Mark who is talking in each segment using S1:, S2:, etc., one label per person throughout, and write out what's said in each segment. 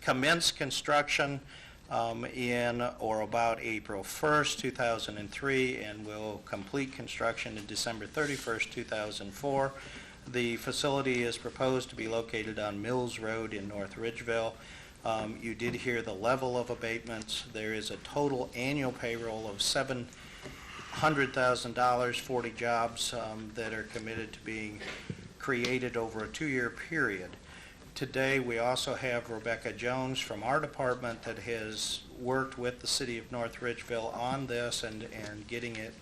S1: commence construction um, in or about April 1st, 2003, and will complete construction in December 31st, 2004. The facility is proposed to be located on Mills Road in North Ridgeville. Um, You did hear the level of abatements. There is a total annual payroll of $700,000, 40 jobs um, that are committed to being created over a two-year period. Today, we also have Rebecca Jones from our department that has worked with the city of North Ridgeville on this and, and getting it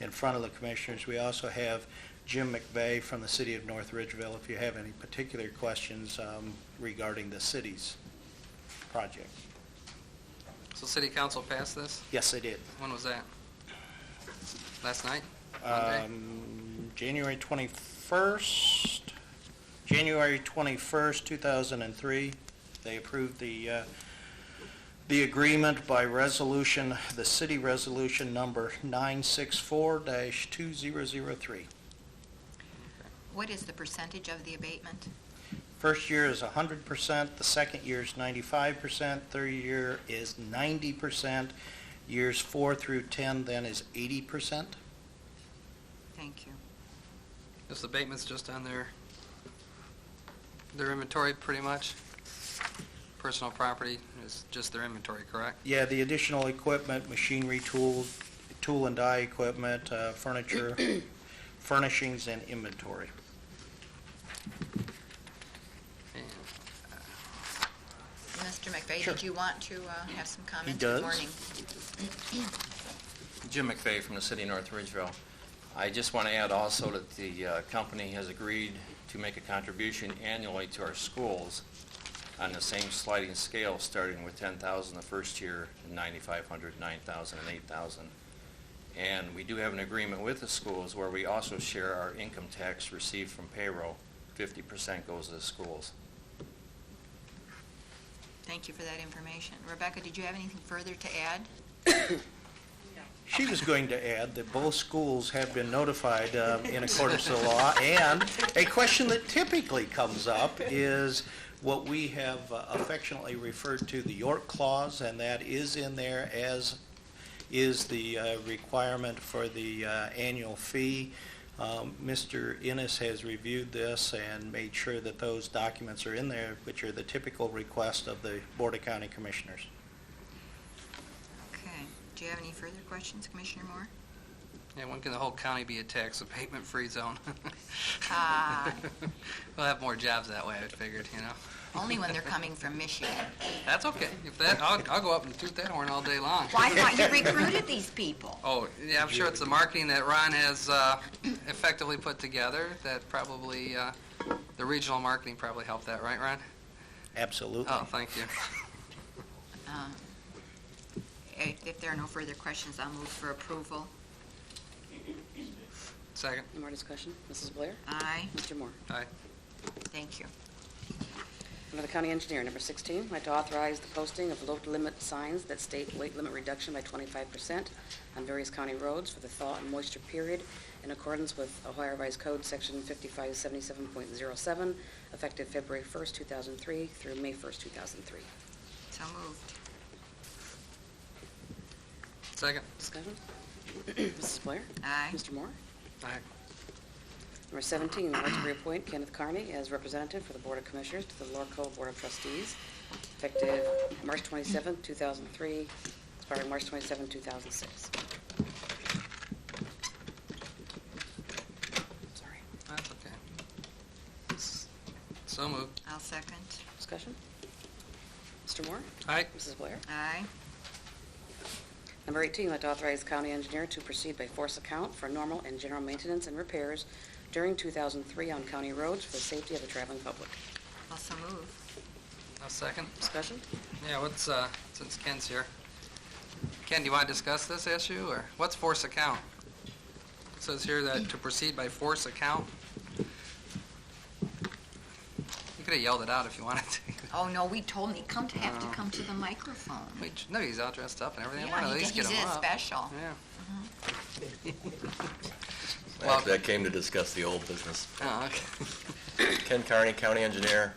S1: in front of the commissioners. We also have Jim McVeigh from the city of North Ridgeville, if you have any particular questions um, regarding the city's project.
S2: So city council passed this?
S1: Yes, they did.
S2: When was that? Last night? Monday?
S1: Um, January 21st, January 21st, 2003, they approved the, uh, the agreement by resolution, the city resolution number 964-2003.
S3: What is the percentage of the abatement?
S1: First year is 100%, the second year is 95%, third year is 90%, years four through 10 then is 80%.
S3: Thank you.
S2: This abatement's just on their, their inventory, pretty much? Personal property is just their inventory, correct?
S1: Yeah, the additional equipment, machinery, tools, tool and die equipment, uh, furniture, furnishings, and inventory.
S2: And
S3: Mr. McVeigh,
S1: Sure.
S3: did you want to uh, have some comments?
S1: does.
S3: Good morning.
S4: Jim McVeigh from the city of North Ridgeville. I just want to add also that the uh, company has agreed to make a contribution annually to our schools on the same sliding scale, starting with 10,000 the first year, and 9,500, 9,000, and 8,000. And we do have an agreement with the schools where we also share our income tax received from payroll. 50% goes to the schools.
S3: Thank you for that information. Rebecca, did you have anything further to add?
S1: She was going to add that both schools have been notified um, in accordance with the law, and a question that typically comes up is what we have uh, affectionately referred to the York Clause, and that is in there as is the uh, requirement for the uh, annual fee. Um, Mr. Innes has reviewed this and made sure that those documents are in there, which are the typical request of the Board of County Commissioners.
S3: Okay. Do you have any further questions, Commissioner Moore?
S2: Yeah, when can the whole county be a tax abatement-free zone?
S3: Ah,
S2: We'll have more jobs that way, I figured, you know?
S3: only when they're coming from Michigan.
S2: That's okay. If that, I'll, I'll go up and toot that horn all day long.
S3: Why not? You recruited these people.
S2: Oh, yeah, I'm sure it's the marketing that Ron has uh, effectively put together that probably, uh, the regional marketing probably helped that, right, Ron?
S1: Absolutely.
S2: Oh, thank you.
S3: Um, i- If there are no further questions, I'll move for approval.
S2: Second.
S5: Any more discussion? Mrs. Blair?
S3: Aye.
S5: Mr. Moore?
S3: Thank you.
S5: Under the County Engineer, number 16, I'd like to authorize the posting of load limit signs that state weight limit reduction by 25% on various county roads for the thaw and moisture period in accordance with Ohio Revised Code, Section 5577.07, effective February 1st, 2003 through May 1st, 2003.
S3: So moved.
S2: Second.
S5: Discussion? Mrs. Blair?
S3: Aye.
S5: Mr. Moore?
S2: Aye.
S5: Number 17, I'd like to reappoint Kenneth Carney as representative for the Board of Commissioners to the Lorco Board of Trustees, effective March 27, 2003, expiring March 27, 2006. Sorry.
S2: That's okay. S- So moved.
S3: I'll second.
S5: Discussion? Mr. Moore?
S2: Aye.
S5: Mrs. Blair?
S3: Aye.
S5: Number 18, I'd like to authorize county engineer to proceed by force account for normal and general maintenance and repairs during 2003 on county roads for the safety of the traveling public.
S3: Also moved.
S2: A second.
S5: Discussion?
S2: Yeah, what's, uh, since Ken's here. Ken, do you want to discuss this issue, or what's force account? It says here that to proceed by force account. You could have yelled it out if you wanted to.
S3: Oh, no, we told him, he come to, have to come to the microphone.
S2: We- No, he's all dressed up and everything. I
S3: Yeah,
S2: want to at
S3: he-
S2: least get
S3: he's
S2: him
S3: in
S2: up.
S3: special.
S2: Yeah. Well-
S6: Actually, I came to discuss the old business.
S2: Oh, okay.
S6: Ken Carney, County Engineer.